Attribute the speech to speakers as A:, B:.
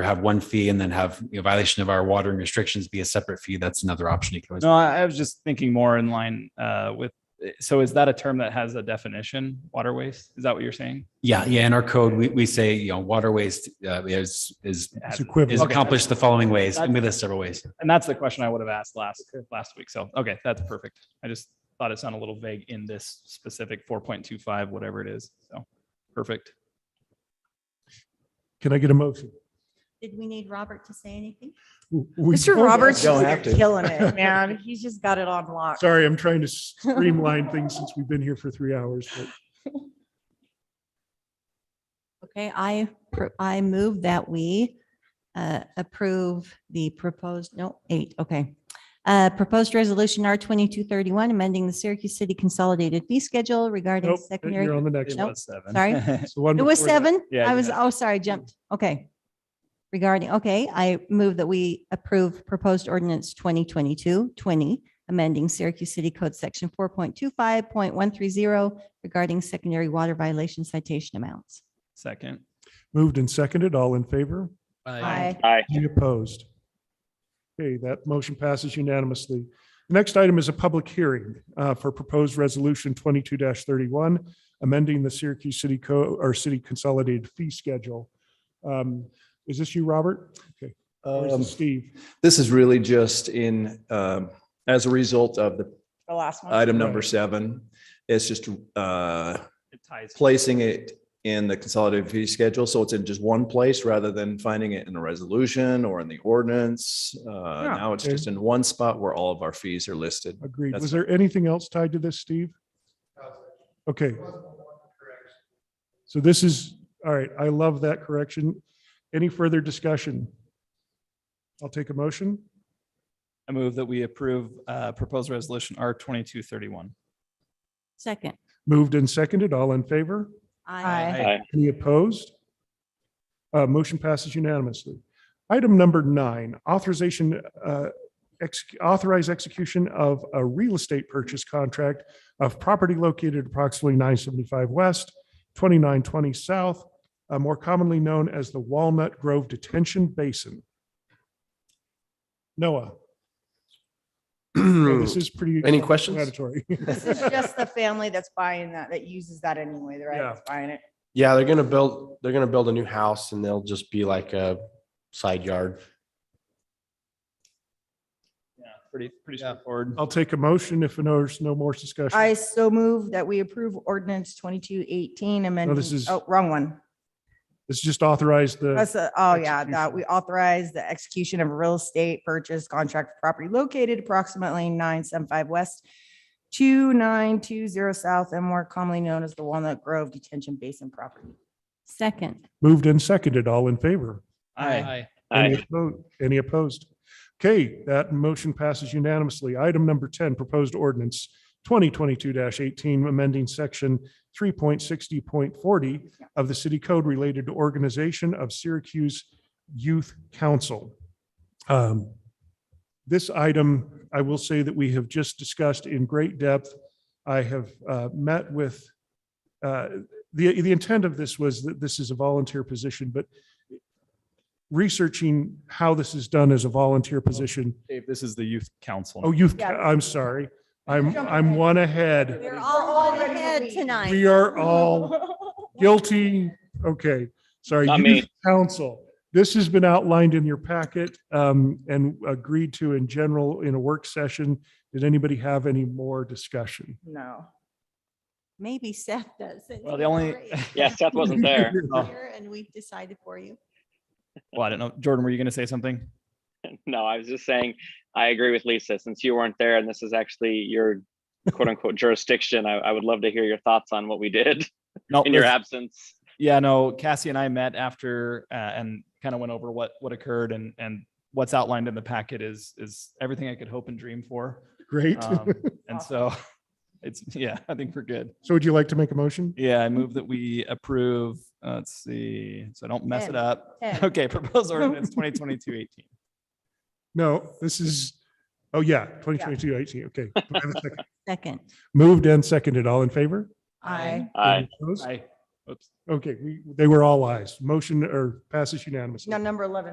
A: or have one fee and then have you know, violation of our watering restrictions be a separate fee. That's another option you can always.
B: No, I I was just thinking more in line uh, with, so is that a term that has a definition, water waste? Is that what you're saying?
A: Yeah, yeah. In our code, we, we say, you know, water waste uh, is, is,
B: It has-
C: It's equivalent.
A: is
B: Okay.
A: accomplished the following ways. And we list several ways.
B: And that's the question I would have asked last, last week. So, okay, that's perfect. I just thought it sounded a little vague in this specific four point two five, whatever it is. So, perfect.
C: Can I get a motion?
D: Did we need Robert to say anything?
C: We
E: Mr.
C: voted.
E: Roberts
F: Don't
E: is
F: have to.
E: killing it, man. He's just got it on lock.
C: Sorry, I'm trying to streamline things since we've been here for three hours. but
D: Okay, I, pr- I move that we uh, approve the proposed, no, eight, okay. Uh, Proposed resolution R twenty-two thirty-one, amending the Syracuse City Consolidated Fee Schedule regarding
C: Nope,
D: secondary.
C: you're on the next
B: It
C: one.
D: Nope,
B: was seven.
D: sorry.
C: It's the one
D: It was
C: before that.
D: seven?
B: Yeah,
D: I was,
B: yeah.
D: oh, sorry, jumped. Okay. Regarding, okay, I move that we approve proposed ordinance 2022 20, amending Syracuse City Code Section 4.25.130 regarding secondary water violation citation amounts.
B: Second.
C: Moved and seconded, all in favor?
D: Aye.
C: Any opposed? Okay, that motion passes unanimously. The Next item is a public hearing uh, for proposed resolution twenty-two thirty-one, amending the Syracuse City Co, or City Consolidated Fee Schedule. Um, Is this you, Robert? Okay, or is
F: Um,
C: this Steve?
F: This is really just in, um, as a result of the
E: The last
C: Oh,
E: one.
F: item number seven. It's just uh,
B: It ties.
F: placing it in the consolidated fee schedule, so it's in just one place rather than finding it in a resolution or in the ordinance. Uh, Now it's
C: okay.
F: just in one spot where all of our fees are listed.
C: Agreed.
F: That's-
C: Was there anything else tied to this, Steve? Okay. So this is, all right, I love that correction. Any further discussion? I'll take a motion.
B: I move that we approve uh, proposed resolution R twenty-two thirty-one.
D: Second.
C: Moved and seconded, all in favor?
E: Aye.
C: Any opposed? Uh, Motion passes unanimously. Item number nine, authorization, uh, ex- authorize execution of a real estate purchase contract of property located approximately 975 West, 2920 South, uh, more commonly known as the Walnut Grove Detention Basin. Noah, this is pretty.
G: Any questions?
C: explanatory.
E: This is just the family that's buying that, that uses that anyway, right?
C: Yeah.
E: That's Buying it.
G: Yeah, they're gonna build, they're gonna build a new house and they'll just be like a side yard.
B: Yeah, pretty, pretty straightforward.
C: I'll take a motion if there's no more discussion.
E: I so move that we approve ordinance twenty-two eighteen amending,
C: is-
E: oh, wrong one.
C: It's just authorized the.
E: That's, a- oh yeah, that
C: execution.
E: we authorize the execution of a real estate purchase contract for property located approximately nine seven five west, two nine two zero south and more commonly known as the Walnut Grove Detention Basin property.
D: Second.
C: Moved and seconded. All in favor?
B: Aye.
C: Any oppo- Any opposed? Okay, that motion passes unanimously. Item number 10, proposed ordinance 2022-18, amending section 3.60.40 of the city code related to organization of Syracuse Youth Council. Um, This item, I will say that we have just discussed in great depth. I have uh, met with, uh, the, the intent of this was that this is a volunteer position, but researching how this is done as a volunteer position.
B: Dave, this is the youth council.
C: Oh, youth,
E: Yeah.
C: I'm sorry. I'm,
E: Jump
C: I'm
E: ahead.
C: one ahead.
D: We're all in head
C: We
D: tonight.
C: are all guilty. Okay, sorry.
H: Not
C: youth
H: me.
C: Council. This has been outlined in your packet um, and agreed to in general in a work session. Did anybody have any more discussion?
E: No.
D: Maybe Seth does. and
B: Well,
D: he's
B: the only-
D: great.
H: Yeah, Seth wasn't there.
D: Here, And we've decided for you.
B: Well, I don't know. Jordan, were you going to say something?
H: No, I was just saying, I agree with Lisa, since you weren't there and this is actually your quote unquote jurisdiction, I, I would love to hear your thoughts on what we did
B: No,
H: in your
B: let's-
H: absence.
B: Yeah, no, Cassie and I met after uh, and kind of went over what what occurred and and what's outlined in the packet is is everything I could hope and dream for.
C: Great.
B: Um, and so it's yeah, I think we're good.
C: So would you like to make a motion?
B: Yeah, I move that we approve. uh, Let's see, so I don't mess
E: Ten.
B: it up.
E: Ten.
B: Okay, proposed ordinance 2022 18.
C: No, this is, oh yeah, 2022, 18, okay. Do I have a second?
D: Second.
C: Moved and seconded. All in favor?
E: I.
H: Aye.
C: Any opposed?
B: I, oops.
C: Okay, we, they were all ayes. Motion or passes unanimously.
E: Now, number eleven.